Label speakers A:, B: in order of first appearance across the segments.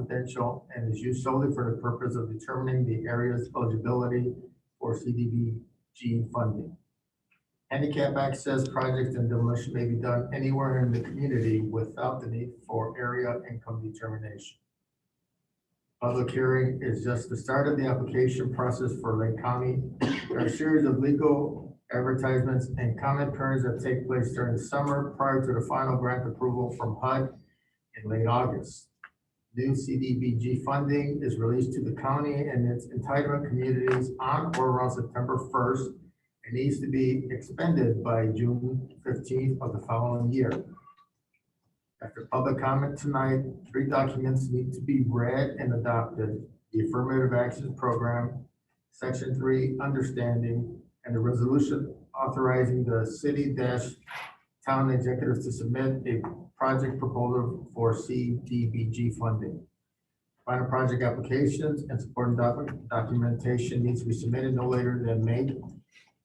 A: confidential and is used solely for the purpose of determining the area's eligibility for CDBG funding. Handicap access projects and demolition may be done anywhere in the community without the need for area income determination. Public hearing is just the start of the application process for Lake County. There are a series of legal advertisements and comment periods that take place during the summer prior to the final grant approval from HUD in late August. New CDBG funding is released to the county and its entitlement communities on or around September first. It needs to be expended by June fifteenth of the following year. After public comment tonight, three documents need to be read and adopted. The Affirmative Action Program, Section Three, Understanding, and the resolution authorizing the city dash town executives to submit a project proposal for CDBG funding. Final project applications and supporting doc- documentation needs to be submitted no later than May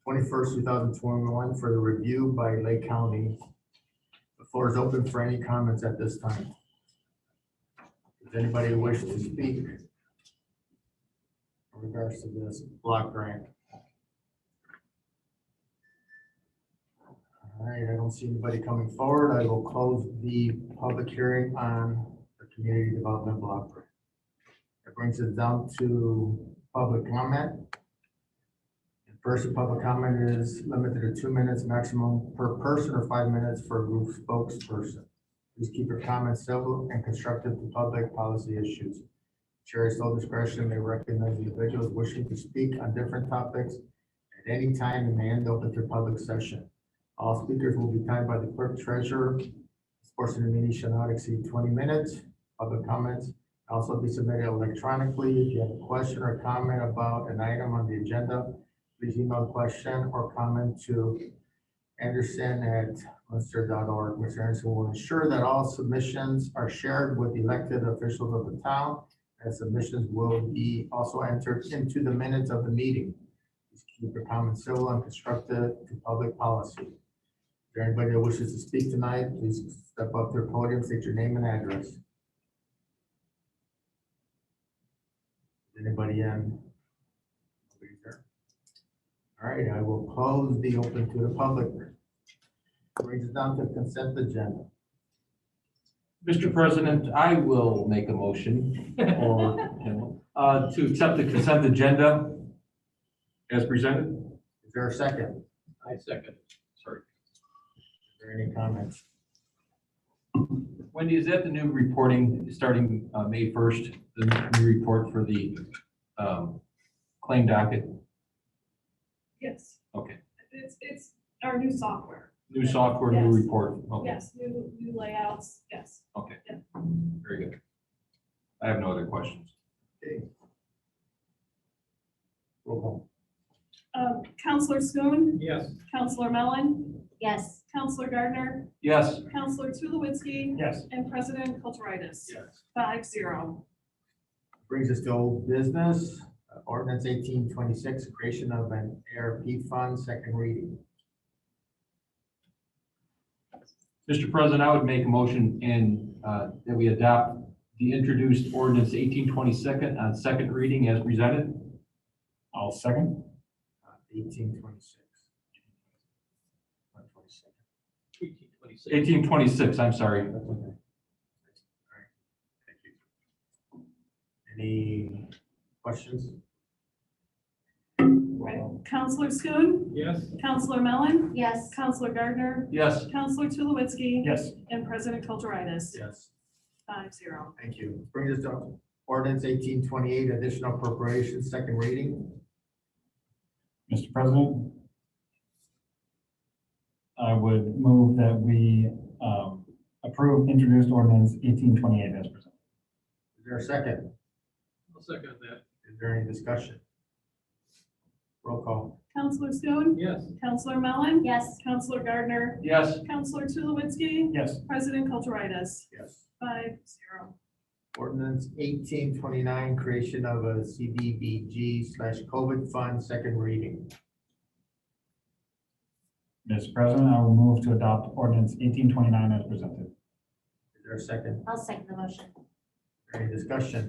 A: twenty-first, two thousand twenty-one for the review by Lake County. The floor is open for any comments at this time. Does anybody wish to speak in regards to this block grant? All right, I don't see anybody coming forward. I will close the public hearing on the community development block grant. That brings us down to public comment. The First, public comment is limited to two minutes maximum per person or five minutes for a group spokesperson. Please keep your comments civil and constructive to public policy issues. Chair is sole discretion may recognize individuals wishing to speak on different topics at any time and may end up at your public session. All speakers will be timed by the clerk treasurer. This portion of the meeting shall not exceed twenty minutes. Public comments also be submitted electronically. If you have a question or comment about an item on the agenda, please email question or comment to anderson@munster.org. Mr. Anderson will ensure that all submissions are shared with elected officials of the town, and submissions will be also entered into the minutes of the meeting. Please Keep your comments civil and constructive to public policy. Is there anybody that wishes to speak tonight? Please step up to the podium, state your name and address. Is Anybody in? Nobody there? All right, I will close the open to the public. Brings us down to consent agenda.
B: Mr. President, I will make a motion or, you know, uh, to accept the consent agenda as presented.
A: Is there a second?
B: I second. Sorry.
A: Is there any comments?
B: Wendy, is that the new reporting starting uh, May 1st, the new report for the um, claim docket?
C: Yes.
B: Okay.
C: It's, it's our new software.
B: New software, new
C: Yes.
B: report? Okay,
C: Yes, new, new layouts, yes.
B: very good. I have no other questions.
A: Roll call.
C: Um, Counselor Schoen,
B: Yes.
C: Counselor Mellon,
D: Yes,
C: Counselor Gardner,
B: Yes.
C: Counselor Tulowitzki,
B: Yes.
C: and President Kulturitis.
B: Yes.
C: Five zero.
A: Brings us to old business, uh, ordinance eighteen twenty-six, creation of an ARP fund, second reading.
B: Mr. President, I would make a motion and uh, that we adopt the introduced ordinance eighteen twenty-second on second reading as presented. I'll second.
A: Uh, Eighteen twenty-six.
B: Eighteen twenty-six, I'm sorry.
A: Any questions?
C: Right. Counselor Schoen,
B: Yes.
C: Counselor Mellon,
D: yes,
C: Counselor Gardner,
B: Yes.
C: Counselor Tulowitzki,
B: Yes.
C: and President Kulturitis.
A: Yes.
C: Five zero.
A: Thank you. Brings us to ordinance eighteen twenty-eight, additional appropriations, second reading.
E: Mr. President, I would move that we um, approve introduced ordinance eighteen twenty-eight as presented.
A: Is there a second?
F: I'll second that.
A: Is there any discussion? Roll call.
C: Counselor Schoen,
F: Yes.
C: Counselor Mellon,
D: yes,
C: Counselor Gardner,
B: Yes.
C: Counselor Tulowitzki,
E: Yes,
C: President Kulturitis.
A: Yes.
C: Five zero.
A: Ordinance eighteen twenty-nine, creation of a CDBG slash COVID fund, second reading.
E: Mr. President, I will move to adopt ordinance eighteen twenty-nine as presented.
A: Is there a second?
D: I'll second the motion.
A: Any discussion?